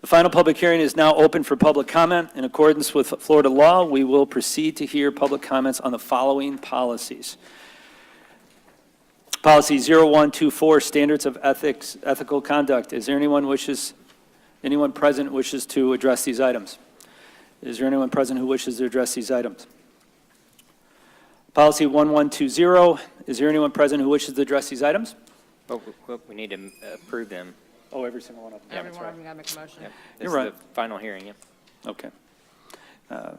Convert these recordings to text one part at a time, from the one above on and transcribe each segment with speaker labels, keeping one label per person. Speaker 1: The final public hearing is now open for public comment. In accordance with Florida law, we will proceed to hear public comments on the following policies. Policy 0124, Standards of Ethics, Ethical Conduct. Is there anyone wishes, anyone present wishes to address these items? Is there anyone present who wishes to address these items? Policy 1120, is there anyone present who wishes to address these items?
Speaker 2: Well, w- w- Oh, we need to m- approve them.
Speaker 1: Oh, every single one of them.
Speaker 2: Yeah, that's
Speaker 3: Everyone,
Speaker 2: right.
Speaker 3: I'm gonna make a motion.
Speaker 2: Yep.
Speaker 1: You're
Speaker 2: This
Speaker 1: right.
Speaker 2: is the final hearing, yeah.
Speaker 1: Okay. Uh,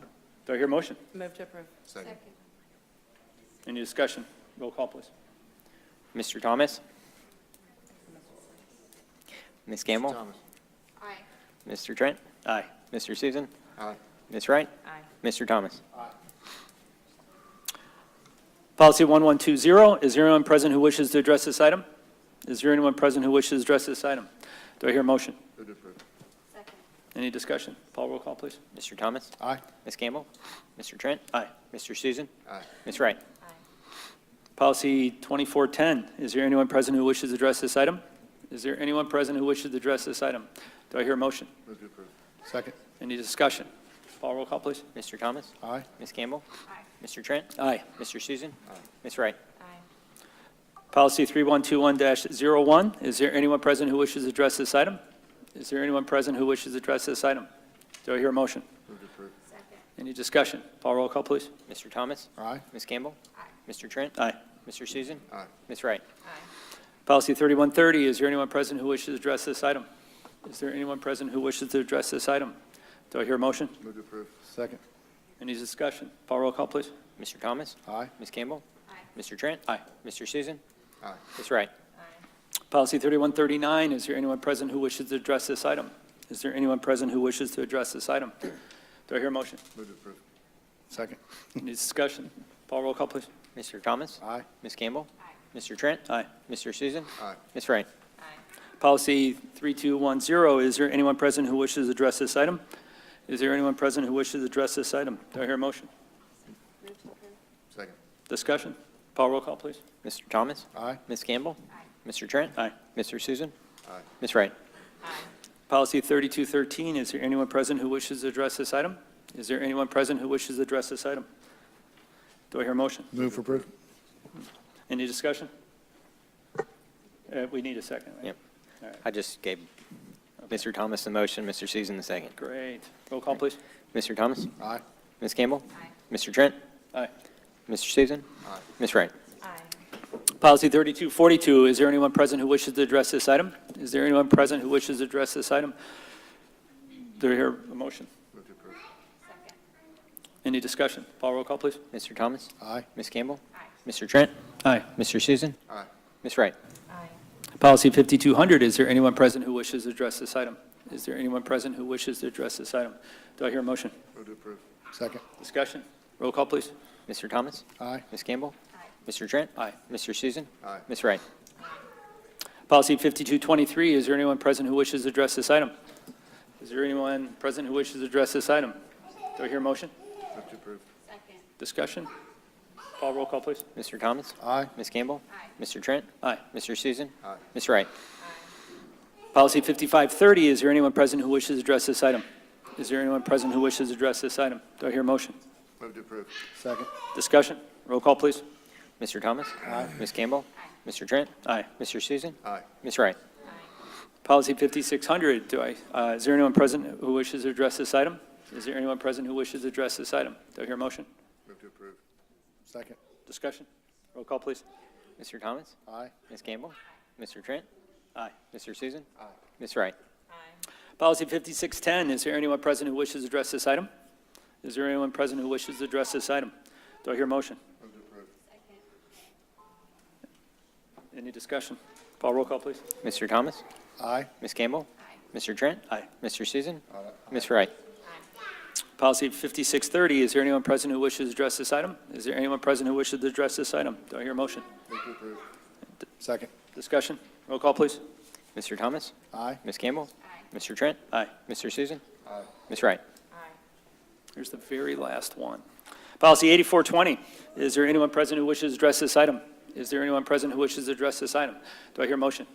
Speaker 1: Do I hear a motion?
Speaker 3: Move to approve.
Speaker 4: Second.
Speaker 1: Any discussion? Roll call, please.
Speaker 2: Mr. Thomas? Ms. Gamble?
Speaker 4: Thomas.
Speaker 3: Aye.
Speaker 2: Mr. Trent?
Speaker 1: Aye.
Speaker 2: Mr. Susan?
Speaker 4: Aye.
Speaker 2: Ms. Wright?
Speaker 3: Aye.
Speaker 2: Mr. Thomas?
Speaker 1: Policy 1120, is there anyone present who wishes to address this item? Is there anyone present who wishes to address this item? Do I hear a motion?
Speaker 4: Move to approve.
Speaker 1: Any discussion? Paul, roll call, please.
Speaker 2: Mr. Thomas?
Speaker 4: Aye.
Speaker 2: Ms. Gamble? Mr. Trent?
Speaker 1: Aye.
Speaker 2: Mr. Susan?
Speaker 4: Aye.
Speaker 2: Ms. Wright?
Speaker 1: Policy 2410, is there anyone present who wishes to address this item? Is there anyone present who wishes to address this item? Do I hear a motion?
Speaker 4: Move to approve. Second.
Speaker 1: Any discussion? Paul, roll call, please.
Speaker 2: Mr. Thomas?
Speaker 4: Aye.
Speaker 2: Ms. Gamble? Mr. Trent?
Speaker 1: Aye.
Speaker 2: Mr. Susan? Ms. Wright?
Speaker 3: Aye.
Speaker 1: Policy 3121-01, is there anyone present who wishes to address this item? Is there anyone present who wishes to address this item? Do I hear a motion?
Speaker 4: Move to approve.
Speaker 1: Any discussion? Paul, roll call, please.
Speaker 2: Mr. Thomas?
Speaker 4: Aye.
Speaker 2: Ms. Gamble? Mr. Trent?
Speaker 1: Aye.
Speaker 2: Mr. Susan?
Speaker 4: Aye.
Speaker 2: Ms. Wright?
Speaker 1: Policy 3130, is there anyone present who wishes to address this item? Is there anyone present who wishes to address this item? Do I hear a motion?
Speaker 4: Move to approve. Second.
Speaker 1: Any discussion? Paul, roll call, please.
Speaker 2: Mr. Thomas?
Speaker 4: Aye.
Speaker 2: Ms. Gamble? Mr. Trent?
Speaker 1: Aye.
Speaker 2: Mr. Susan?
Speaker 4: Aye.
Speaker 2: Ms. Wright?
Speaker 1: Policy 3139, is there anyone present who wishes to address this item? Is there anyone present who wishes to address this item? Do I hear a motion?
Speaker 4: Move to approve. Second.
Speaker 1: Any discussion? Paul, roll call, please.
Speaker 2: Mr. Thomas?
Speaker 4: Aye.
Speaker 2: Ms. Campbell? Mr. Trent?
Speaker 1: Aye.
Speaker 2: Mr. Susan?
Speaker 4: Aye.
Speaker 2: Ms. Wright?
Speaker 1: Policy 3210, is there anyone present who wishes to address this item? Is there anyone present who wishes to address this item? Do I hear a motion?
Speaker 4: Second.
Speaker 1: Discussion? Paul, roll call, please.
Speaker 2: Mr. Thomas?
Speaker 4: Aye.
Speaker 2: Ms. Campbell? Mr. Trent?
Speaker 1: Aye.
Speaker 2: Mr. Susan?
Speaker 4: Aye.
Speaker 2: Ms. Wright?
Speaker 1: Policy 3213, is there anyone present who wishes to address this item? Is there anyone present who wishes to address this item? Do I hear a motion?
Speaker 4: Move for approve.
Speaker 1: Any discussion? Uh, We need a second, right?
Speaker 2: Yep.
Speaker 1: All right,
Speaker 2: I just gave Mr. Thomas the motion, Mr. Susan the second.
Speaker 1: great. Roll call, please.
Speaker 2: Mr. Thomas?
Speaker 4: Aye.
Speaker 2: Ms. Campbell? Mr. Trent?
Speaker 1: Aye.
Speaker 2: Mr. Susan?
Speaker 4: Aye.
Speaker 2: Ms. Wright?
Speaker 3: Aye.
Speaker 1: Policy 3242, is there anyone present who wishes to address this item? Is there anyone present who wishes to address this item? Do I hear a motion?
Speaker 4: Move to approve.
Speaker 1: Any discussion? Paul, roll call, please.
Speaker 2: Mr. Thomas?
Speaker 4: Aye.
Speaker 2: Ms. Campbell? Mr. Trent?
Speaker 1: Aye.
Speaker 2: Mr. Susan?
Speaker 4: Aye.
Speaker 2: Ms. Wright?
Speaker 3: Aye.
Speaker 1: Policy 5200, is there anyone present who wishes to address this item? Is there anyone present who wishes to address this item? Do I hear a motion?
Speaker 4: Move to approve. Second.
Speaker 1: Discussion? Roll call, please.
Speaker 2: Mr. Thomas?
Speaker 4: Aye.
Speaker 2: Ms. Campbell? Mr. Trent?
Speaker 1: Aye.
Speaker 2: Mr. Susan?
Speaker 4: Aye.
Speaker 2: Ms. Wright?
Speaker 1: Policy 5223, is there anyone present who wishes to address this item? Is there anyone present who wishes to address this item? Do I hear a motion?
Speaker 4: Move to approve.
Speaker 1: Discussion? Paul, roll call, please.
Speaker 2: Mr. Thomas?
Speaker 4: Aye.
Speaker 2: Ms. Campbell? Mr. Trent?
Speaker 1: Aye.
Speaker 2: Mr. Susan?
Speaker 4: Aye.
Speaker 2: Ms. Wright?
Speaker 1: Policy 5530, is there anyone present who wishes to address this item? Is there anyone present who wishes to address this item? Do I hear a motion?
Speaker 4: Move to approve. Second.
Speaker 1: Discussion? Roll call, please.
Speaker 2: Mr. Thomas?
Speaker 4: Aye.
Speaker 2: Ms. Campbell? Mr. Trent?
Speaker 1: Aye.
Speaker 2: Mr. Susan?
Speaker 4: Aye.
Speaker 2: Ms. Wright?
Speaker 1: Policy 5600, do I, uh, is there anyone present who wishes to address this item? Is there anyone present who wishes to address this item? Do I hear a motion?
Speaker 4: Move to approve. Second.
Speaker 1: Discussion? Roll call, please.
Speaker 2: Mr. Thomas?
Speaker 4: Aye.
Speaker 2: Ms. Campbell? Mr. Trent?
Speaker 1: Aye.
Speaker 2: Mr. Susan?
Speaker 4: Aye.
Speaker 2: Ms. Wright?
Speaker 1: Policy 5610, is there anyone present who wishes to address this item? Is there anyone present who wishes to address this item? Do I hear a motion?
Speaker 4: Move to approve.
Speaker 1: Any discussion? Paul, roll call, please.
Speaker 2: Mr. Thomas?
Speaker 4: Aye.
Speaker 2: Ms. Campbell? Mr. Trent?
Speaker 1: Aye.
Speaker 2: Mr. Susan?
Speaker 4: Aye.
Speaker 2: Ms. Wright?
Speaker 1: Policy 5630, is there anyone present who wishes to address this item? Is there anyone present who wishes to address this item? Do I hear a motion?
Speaker 4: Move to approve. Second.
Speaker 1: Discussion? Roll call, please.
Speaker 2: Mr. Thomas?
Speaker 4: Aye.
Speaker 2: Ms. Campbell? Mr. Trent?
Speaker 1: Aye.
Speaker 2: Mr. Susan?
Speaker 4: Aye.
Speaker 2: Ms. Wright?
Speaker 1: Here's the very last one. Policy 8420, is there anyone present who wishes to address this item? Is there anyone present who wishes to address this item? Do I hear a motion?